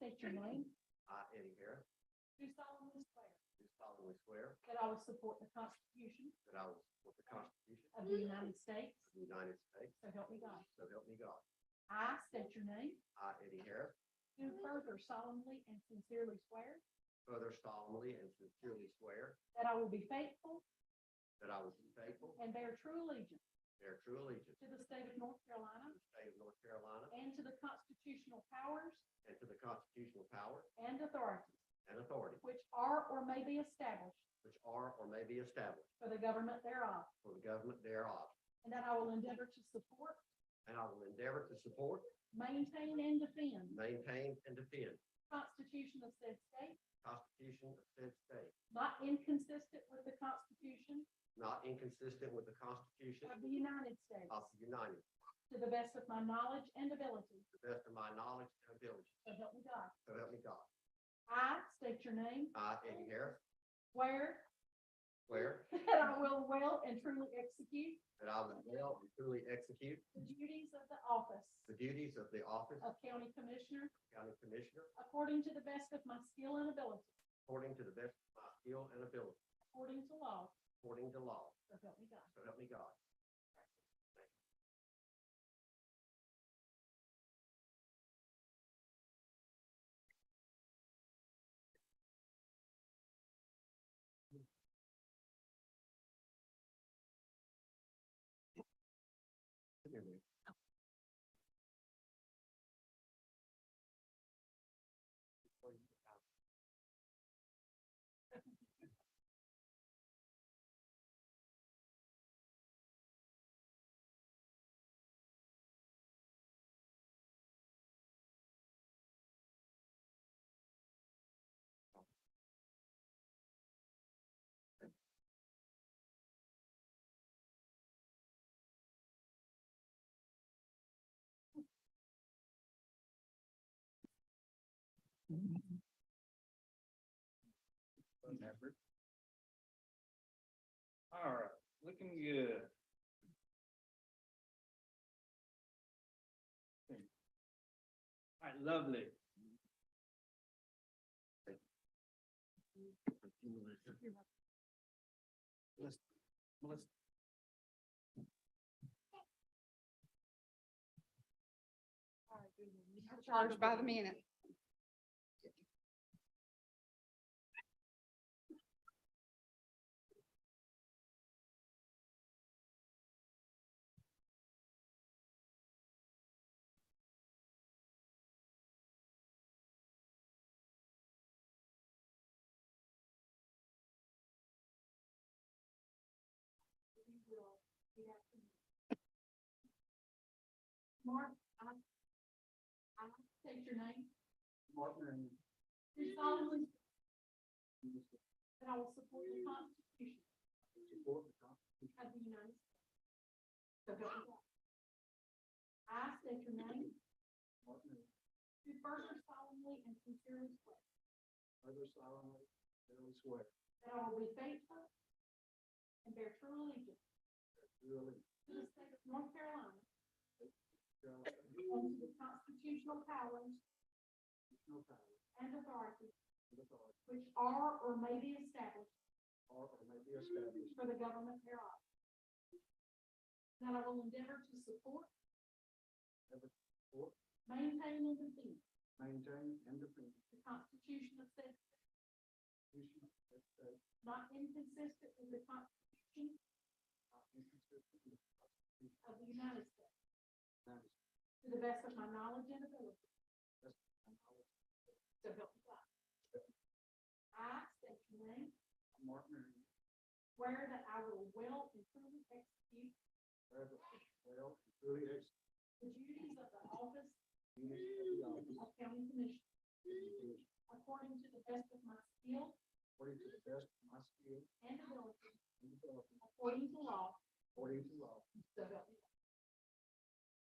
State your name. I, Eddie Harris, Do solemnly swear do solemnly swear that I will support the Constitution that I will support the Constitution of the United States, of the United States, so help me God. so help me God. I state your name. I, Eddie Harris, Do further solemnly and sincerely swear further solemnly and sincerely swear that I will be faithful that I will be faithful, and bear true allegiance bear true allegiance to the state of North Carolina to the state of North Carolina and to the constitutional powers and to the constitutional power and authorities and authority which are or may be established which are or may be established for the government thereof, for the government thereof. and that I will endeavor to support, And I will endeavor to support, maintain, and defend the maintain, and defend Constitution of said state, the Constitution of said state, not inconsistent with the Constitution not inconsistent with the Constitution of the United States, of the United, to to the best of my knowledge and ability, the best of my knowledge and ability, so help me God. so help me God. I state your name, I, Eddie Harris, where swear that I will well and truly execute that I will well and truly execute the duties of the office the duties of the office of of County Commissioner County Commissioner according to the best of my skill and ability, according to the best of my skill and ability, according to law, according to law, so help me God. so help me God. Come here, man. Before you get out. Remember. All right, looking good. All right, lovely. Let's, let's. Charged by the minute. Mark, I, I state your name, Martin do solemnly and that I will support the Constitution support the Constitution of the United States. So help me God. I state your name, Martin and do further solemnly and sincerely swear other solemnly, fairly swear, that I will be faithful and bear true allegiance truly, to the state of North Carolina and God, to the constitutional powers no power, and authorities and authority, which are or may be established are or may be established, for the government thereof. That I will endeavor to support, for, maintain, and defend maintain, and defend the Constitution of said state, the Constitution of the state, not inconsistent with the Constitution not uh, inconsistent with the Constitution of the United States, of the United States, to the best of my knowledge and ability, and I will, so help me God. I state your name, Martin and Where that I will well and truly execute wherever, well, and truly execute the duties of the office the duties of the office of county commissioner of the Commissioner, according to the best of my skill according to the best of my skill and ability, and ability, according to law, according to law, so help me God.